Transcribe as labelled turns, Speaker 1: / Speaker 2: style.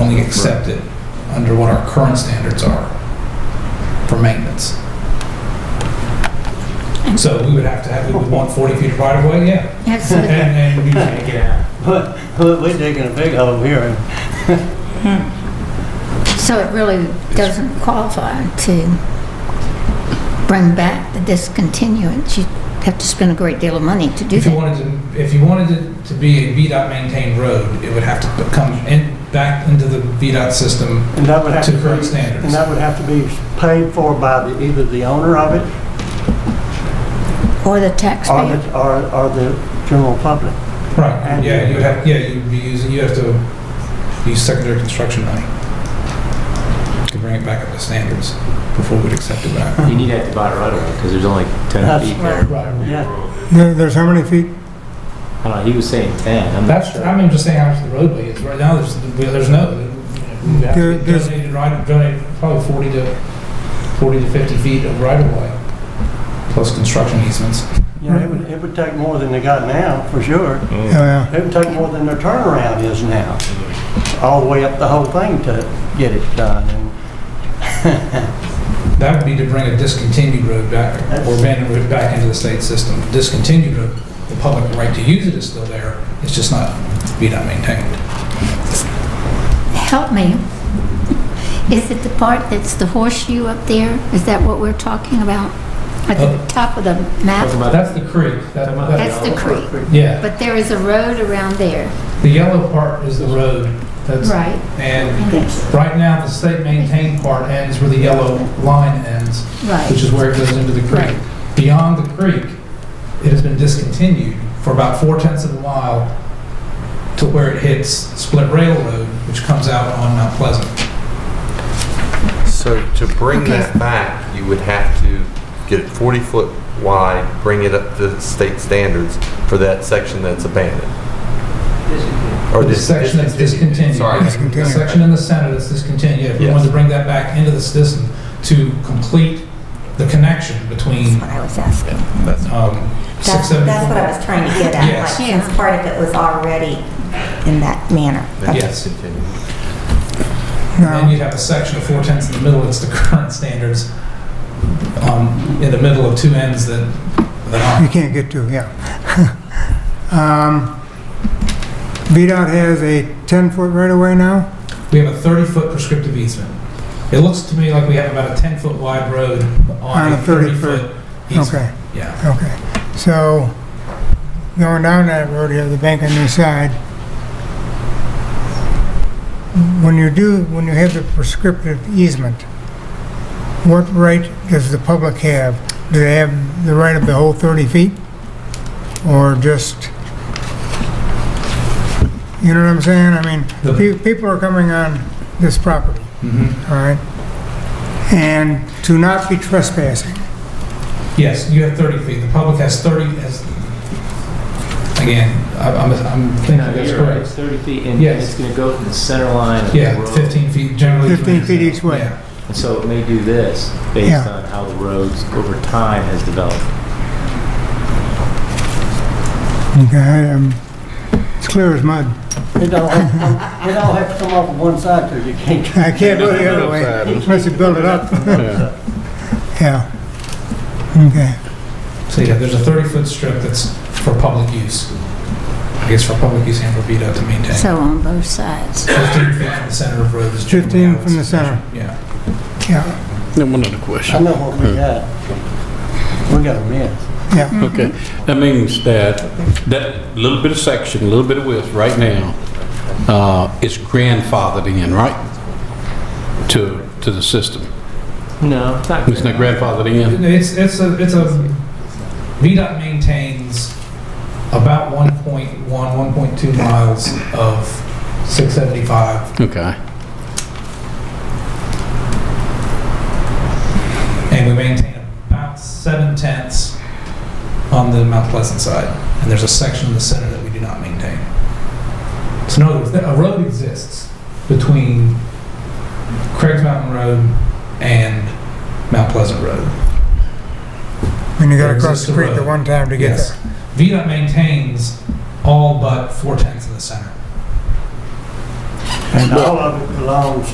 Speaker 1: only accepted under what our current standards are for maintenance. So we would have to have, we would want 40 feet of right of way, yeah. And,
Speaker 2: Excellent.
Speaker 1: and you can't get out.
Speaker 3: But we're digging a big hole here.
Speaker 2: So it really doesn't qualify to bring back the discontinuance. You have to spend a great deal of money to do
Speaker 1: If you
Speaker 2: that.
Speaker 1: wanted to, if you wanted it to be a VDOT maintained road, it would have to come in, back into the VDOT system
Speaker 3: And that would have to
Speaker 1: to
Speaker 3: be...
Speaker 1: current standards.
Speaker 3: And that would have to be paid for by the- either the owner of it
Speaker 2: Or the
Speaker 3: or
Speaker 2: taxpayer.
Speaker 3: the, or or the general public.
Speaker 1: Right,
Speaker 3: And-
Speaker 1: yeah, you have, yeah, you'd be using, you have to use secondary construction money to bring it back up to standards before we'd accept it back.
Speaker 4: You need to have to buy it right away, because there's only 10
Speaker 3: That's
Speaker 4: feet there.
Speaker 3: Yeah,
Speaker 5: There- There's how many feet?
Speaker 4: I don't know, he was saying 10, I'm not
Speaker 1: That's,
Speaker 4: sure.
Speaker 1: I mean, just saying how much the roadway is, right now, there's, there's no, you have
Speaker 5: There-
Speaker 1: to
Speaker 5: there's-
Speaker 1: donated right, donated probably 40 to, 40 to 50 feet of right of way, plus construction easements.
Speaker 3: yeah, it would, it would take more than they got now, for sure.
Speaker 4: mm.
Speaker 5: Oh, yeah.
Speaker 3: It would take more than their turnaround is now, all the way up the whole thing to get it done. And
Speaker 1: That would be to bring a discontinued road back, or abandoned road back into the state system. Discontinued road, the public right to use it is still there, it's just not, be not maintained.
Speaker 2: Help me. Is it the part that's the horseshoe up there? Is that what we're talking about? At
Speaker 1: Uh,
Speaker 2: the top of the
Speaker 4: Talking
Speaker 2: map?
Speaker 4: about-
Speaker 1: That's the creek. That-
Speaker 4: Come on.
Speaker 1: that-
Speaker 2: That's the creek.
Speaker 1: Yeah,
Speaker 2: But there is a road around there,
Speaker 1: the yellow part is the road. That's,
Speaker 2: right?
Speaker 1: and
Speaker 2: And it's-
Speaker 1: right now, the state maintained part ends where the yellow line ends, which
Speaker 2: Right.
Speaker 1: is where it goes into the creek. Beyond the creek, it has been discontinued for about four tenths of a mile to where it hits Split Railroad, which comes out on Mount Pleasant.
Speaker 6: So to bring
Speaker 2: Okay.
Speaker 6: that back, you would have to get it 40 foot wide, bring it up to state standards for that section that's abandoned. Or
Speaker 1: The
Speaker 6: dis-
Speaker 1: section that's discontinued.
Speaker 6: Sorry.
Speaker 1: The section in the center that's discontinued, yeah, if we
Speaker 6: Yes.
Speaker 1: wanted to bring that back into the system to complete the connection between
Speaker 7: That's what I was asking.
Speaker 6: That's-
Speaker 1: um,
Speaker 7: That's,
Speaker 1: 674.
Speaker 7: that's what I was trying to get at,
Speaker 1: Yes.
Speaker 7: like, since part of it was already in that manner.
Speaker 6: that's
Speaker 1: Yes.
Speaker 6: discontinued.
Speaker 1: And then you'd have a section of four tenths in the middle, that's the current standards, um, in the middle of two ends that, that
Speaker 5: You
Speaker 1: aren't.
Speaker 5: can't get to, yeah. Um, VDOT has a 10-foot right-of-way now?
Speaker 1: We have a 30-foot prescriptive easement. It looks to me like we have about a 10-foot wide road on
Speaker 5: On
Speaker 1: a
Speaker 5: a 30 foot.
Speaker 1: 30-foot easement.
Speaker 5: Okay,
Speaker 1: Yeah,
Speaker 5: okay. So going down that road, you have the bank on your side. When you do, when you have the prescriptive easement, what right does the public have? Do they have the right of the whole 30 feet? Or just, you know what I'm saying? I mean,
Speaker 1: The-
Speaker 5: pe- people are coming on this property.
Speaker 1: mhm.
Speaker 5: all right? And to not be trespassing.
Speaker 1: Yes, you have 30 feet. The public has 30, has, again, I- I'm, I'm thinking
Speaker 4: No,
Speaker 1: that's
Speaker 4: you're right,
Speaker 1: correct.
Speaker 4: It's 30 feet, and
Speaker 1: Yes.
Speaker 4: it's going to go from the center line of the
Speaker 1: Yeah,
Speaker 4: road.
Speaker 1: 15 feet generally.
Speaker 5: 15 feet each way.
Speaker 1: Yeah.
Speaker 4: And so it may do this, based
Speaker 5: Yeah.
Speaker 4: on how the roads over time has developed.
Speaker 5: Okay, um, it's clear as mud.
Speaker 3: It all, it all have to come off of one side too, you can't
Speaker 5: I can't go the other way unless you build it up. Yeah. Okay.
Speaker 1: So yeah, there's a 30-foot strip that's for public use. I guess for public use and for VDOT to maintain.
Speaker 2: So on both sides.
Speaker 1: 15 feet from the center of road is generally
Speaker 5: 15
Speaker 1: how it's
Speaker 5: from the center.
Speaker 1: measured, Yeah.
Speaker 5: Yeah,
Speaker 8: Then one other
Speaker 3: I
Speaker 8: question.
Speaker 3: know what we got. We got a mess.
Speaker 5: yeah.
Speaker 8: Okay, that means that, that little bit of section, a little bit of width right now, uh, is grandfathered in, right? To, to the system.
Speaker 4: No, it's not.
Speaker 8: Isn't that grandfathered in?
Speaker 1: It's, it's a, it's a, VDOT maintains about 1.1, 1.2 miles of 675,
Speaker 8: Okay.
Speaker 1: and we maintain about 7 tenths on the Mount Pleasant side, and there's a section in the center that we do not maintain. So in other words, a road exists between Craig's Mountain Road and Mount Pleasant Road.
Speaker 5: And you
Speaker 1: Or
Speaker 5: gotta
Speaker 1: is
Speaker 5: cross
Speaker 1: this
Speaker 5: the
Speaker 1: the
Speaker 5: creek the
Speaker 1: road?
Speaker 5: one time to get
Speaker 1: Yes.
Speaker 5: there.
Speaker 1: VDOT maintains all but four tenths of the center.
Speaker 3: And all of it belongs